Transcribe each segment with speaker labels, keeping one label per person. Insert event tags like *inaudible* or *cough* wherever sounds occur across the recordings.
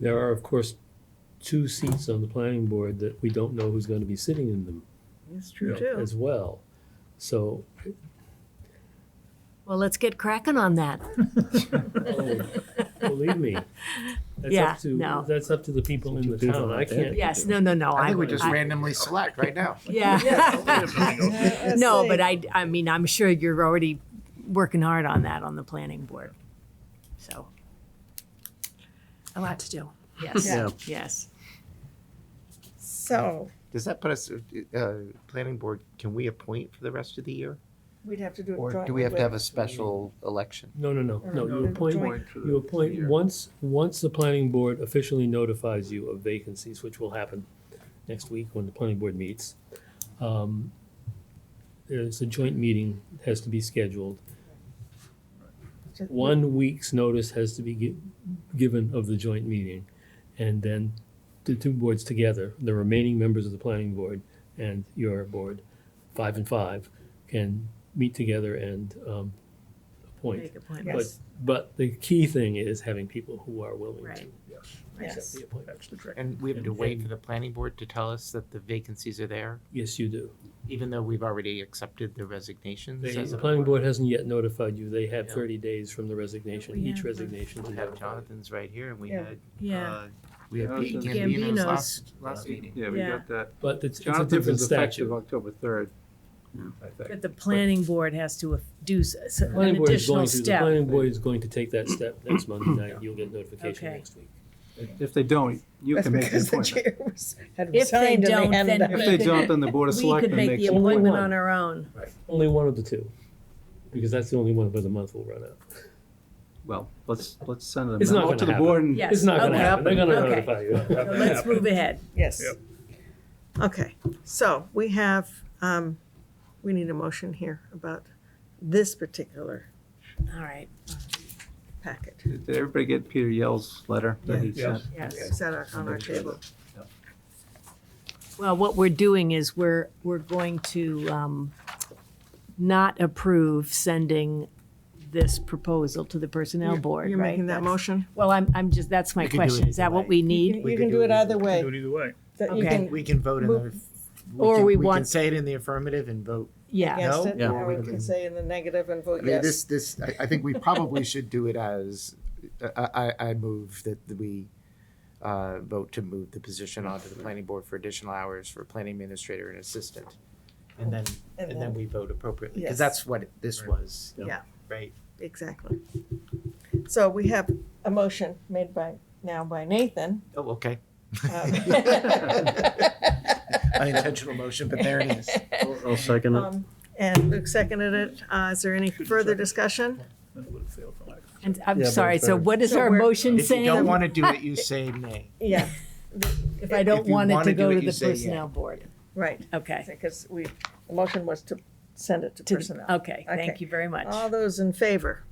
Speaker 1: There are, of course, two seats on the planning board that we don't know who's gonna be sitting in them
Speaker 2: It's true too.
Speaker 1: as well. So,
Speaker 3: Well, let's get cracking on that.
Speaker 1: oh, believe me, that's
Speaker 3: Yeah,
Speaker 1: up to,
Speaker 3: no.
Speaker 1: that's up to the people in the
Speaker 4: people
Speaker 1: town. I
Speaker 4: out there.
Speaker 1: can't.
Speaker 3: Yes, no, no, no.
Speaker 5: I think we
Speaker 3: would- *laughs*
Speaker 5: just randomly select right now.
Speaker 3: Yeah.
Speaker 2: Yeah,
Speaker 3: *laughs* No,
Speaker 2: say-
Speaker 3: but I, I mean, I'm sure you're already working hard on that on the planning board. So. A lot to do. Yes,
Speaker 4: Yeah.
Speaker 3: yes.
Speaker 2: So,
Speaker 5: Does that put us, uh, planning board, can we appoint for the rest of the year?
Speaker 2: we'd have to do it.
Speaker 5: Or do
Speaker 2: jointly
Speaker 5: we have to
Speaker 2: with-
Speaker 5: have a special election?
Speaker 1: No, no, no, no, Oh, you
Speaker 2: No,
Speaker 1: appoint,
Speaker 2: joint.
Speaker 1: you appoint, once, once the planning board officially notifies you of vacancies, which will happen next week when the planning board meets. um, There's a joint meeting that has to be scheduled.
Speaker 2: Just-
Speaker 1: One week's notice has to be gi- given of the joint meeting. And then the two boards together, the remaining members of the planning board and your board, five and five, can meet together and um, appoint.
Speaker 3: Make appointments.
Speaker 1: But,
Speaker 2: Yes.
Speaker 1: but the key thing is having people who are willing to
Speaker 3: Right.
Speaker 1: accept
Speaker 2: Yes.
Speaker 1: the appointment.
Speaker 4: That's the trick.
Speaker 5: And we have to
Speaker 1: And-
Speaker 5: wait
Speaker 1: and-
Speaker 5: for the planning board to tell us that the vacancies are there,
Speaker 1: Yes, you do.
Speaker 5: even though we've already accepted the resignations?
Speaker 1: They-
Speaker 5: as
Speaker 1: The
Speaker 5: a
Speaker 1: planning board hasn't yet notified you. They have
Speaker 5: Yeah.
Speaker 1: thirty days from the resignation,
Speaker 3: We
Speaker 1: each
Speaker 3: have, uh,
Speaker 1: resignation to
Speaker 5: We have
Speaker 1: notify.
Speaker 5: Jonathan's right here and we
Speaker 2: Yeah.
Speaker 5: had,
Speaker 3: Yeah.
Speaker 5: uh, we had Pete
Speaker 4: Jonathan.
Speaker 5: Gambino's
Speaker 3: Gambino's.
Speaker 5: last, last meeting.
Speaker 4: Yeah, we
Speaker 3: Yeah.
Speaker 4: got that.
Speaker 1: But it's, it's a
Speaker 4: Jonathan's
Speaker 1: different
Speaker 4: is effective
Speaker 1: statute.
Speaker 4: October third, I think.
Speaker 3: But the planning board has to do s- s-
Speaker 1: The
Speaker 3: an
Speaker 1: Planning board is
Speaker 3: additional
Speaker 1: going to, the
Speaker 3: step.
Speaker 1: planning board is going to take that step next Monday night. You'll get notification
Speaker 3: Okay.
Speaker 1: next week.
Speaker 4: If they don't, you
Speaker 2: That's
Speaker 4: can make the
Speaker 2: because the
Speaker 4: appointment.
Speaker 2: chair was, had
Speaker 3: If they
Speaker 2: resigned
Speaker 3: don't,
Speaker 2: and they hadn't
Speaker 3: then-
Speaker 2: done
Speaker 4: If
Speaker 2: *laughs*
Speaker 4: they don't, then the board of
Speaker 3: We could
Speaker 4: selectmen
Speaker 3: make
Speaker 4: makes
Speaker 3: the
Speaker 4: the
Speaker 1: appointment.
Speaker 3: appointment on our own.
Speaker 1: Only one of the two, because that's the only one where the month will run out.
Speaker 4: Well, let's, let's send them
Speaker 1: It's not
Speaker 4: out to
Speaker 1: gonna
Speaker 4: the board and.
Speaker 3: Yes.
Speaker 1: It's not gonna
Speaker 3: okay.
Speaker 1: happen. They're gonna
Speaker 3: Okay.
Speaker 1: notify you.
Speaker 3: *laughs* So Let's move ahead.
Speaker 2: Yes. Okay, so we have, um, we need a motion here about this particular
Speaker 3: All right,
Speaker 2: packet.
Speaker 4: Did everybody get Peter Yell's letter that he
Speaker 1: Yes.
Speaker 4: sent?
Speaker 3: yes.
Speaker 2: Is that on our table?
Speaker 3: Well, what we're doing is we're, we're going to um, not approve sending this proposal to the Personnel Board, right?
Speaker 2: You're making that
Speaker 3: That's-
Speaker 2: motion?
Speaker 3: Well, I'm, I'm just, that's my
Speaker 5: We could do
Speaker 3: question.
Speaker 5: it
Speaker 3: Is that
Speaker 5: either
Speaker 3: what
Speaker 5: way.
Speaker 3: we need?
Speaker 2: You can do it either way.
Speaker 6: either way.
Speaker 2: That you
Speaker 3: Okay.
Speaker 2: can
Speaker 5: We can vote in
Speaker 2: Move-
Speaker 5: the,
Speaker 3: Or
Speaker 5: can-
Speaker 3: we
Speaker 5: We can
Speaker 3: want-
Speaker 5: say it in the affirmative and vote
Speaker 3: Yeah,
Speaker 2: against
Speaker 5: No?
Speaker 2: it,
Speaker 5: Yeah.
Speaker 2: or we can say in the negative and
Speaker 5: I
Speaker 2: vote
Speaker 5: mean,
Speaker 2: yes.
Speaker 5: this, this, I, I think we probably should do it as, uh, I, I, I move that we uh, vote to move the position onto the planning board for additional hours for planning administrator and assistant. And then,
Speaker 2: And
Speaker 5: and
Speaker 2: then-
Speaker 5: then we vote appropriately,
Speaker 2: Yes.
Speaker 5: because that's what this was.
Speaker 2: Yeah.
Speaker 5: Right?
Speaker 2: Exactly. So we have a motion made by, now by Nathan.
Speaker 5: Oh, okay.
Speaker 2: um,
Speaker 5: *laughs*
Speaker 2: *laughs*
Speaker 5: Unintentional motion, but there it is.
Speaker 4: I'll second
Speaker 2: um, And Luke seconded it. Uh, Is there any further discussion?
Speaker 3: and I'm
Speaker 4: Yeah, but
Speaker 3: sorry, so
Speaker 4: it's-
Speaker 3: what is
Speaker 2: So
Speaker 3: our
Speaker 2: we're-
Speaker 3: motion
Speaker 5: If you don't
Speaker 3: saying?
Speaker 5: want to do it, you say nay.
Speaker 2: Yeah,
Speaker 3: If I
Speaker 5: if
Speaker 3: don't
Speaker 5: you
Speaker 3: want it
Speaker 5: wanna
Speaker 3: to
Speaker 5: do
Speaker 3: go
Speaker 5: it,
Speaker 3: to
Speaker 5: you
Speaker 3: the
Speaker 5: say yeah.
Speaker 3: Personnel Board?
Speaker 2: right,
Speaker 3: Okay.
Speaker 2: because we, the motion was to send it to
Speaker 3: To-
Speaker 2: personnel.
Speaker 3: Okay,
Speaker 2: Okay.
Speaker 3: thank you very much.
Speaker 2: All those in favor?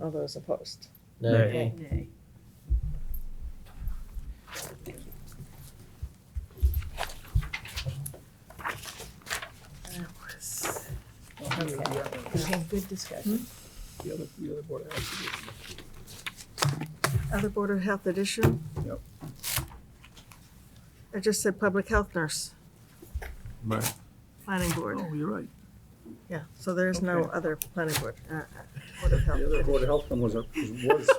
Speaker 2: All those opposed?
Speaker 5: Nay.
Speaker 3: Okay.
Speaker 2: That was-
Speaker 3: Okay, Good *laughs* discussion.
Speaker 2: Other Board of Health addition?
Speaker 4: Yep.
Speaker 2: I just said public health nurse,
Speaker 4: Right.
Speaker 2: planning board.
Speaker 1: Oh,
Speaker 4: you're right.
Speaker 2: Yeah, so there is no
Speaker 4: Okay.
Speaker 2: other planning board, uh, uh, Board of Health.
Speaker 4: The other Board of Health one was, a-
Speaker 2: *laughs*
Speaker 4: was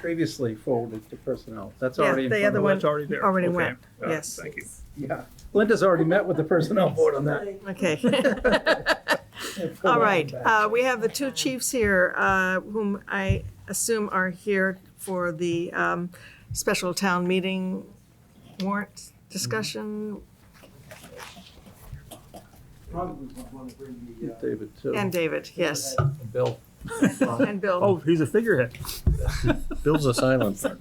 Speaker 4: previously forwarded to personnel. That's
Speaker 2: Yeah,
Speaker 4: already in
Speaker 2: the
Speaker 4: front
Speaker 2: other
Speaker 4: of
Speaker 2: one
Speaker 4: us.
Speaker 6: already there.
Speaker 2: Already
Speaker 6: Okay.
Speaker 2: went,
Speaker 6: Uh,
Speaker 2: yes.
Speaker 6: Thank you.
Speaker 4: Yeah. Linda's already met with the personnel board on that. *laughs*
Speaker 2: Okay. *laughs* All right, uh, we have the two chiefs here, uh, whom I assume are here for the um, special town meeting warrant discussion,
Speaker 4: David, too.
Speaker 2: and David, yes,
Speaker 4: Oh, Bill.
Speaker 2: and Bill.
Speaker 6: Oh, he's a figurehead.
Speaker 4: Bill's
Speaker 2: *laughs*
Speaker 4: a silent partner.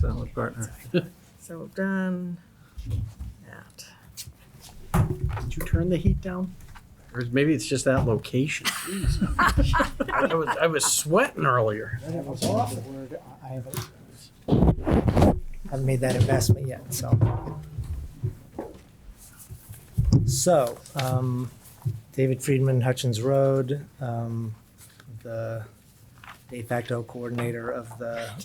Speaker 4: Silent partner.
Speaker 2: So we've done that.
Speaker 7: Did you turn the heat down? Or maybe it's just that location. Jeez. I was, I was sweating earlier.
Speaker 8: I don't know if that's the word. I I haven't, haven't made that investment yet, so. So, um, David Friedman, Hutchins Road, um, the de facto coordinator of the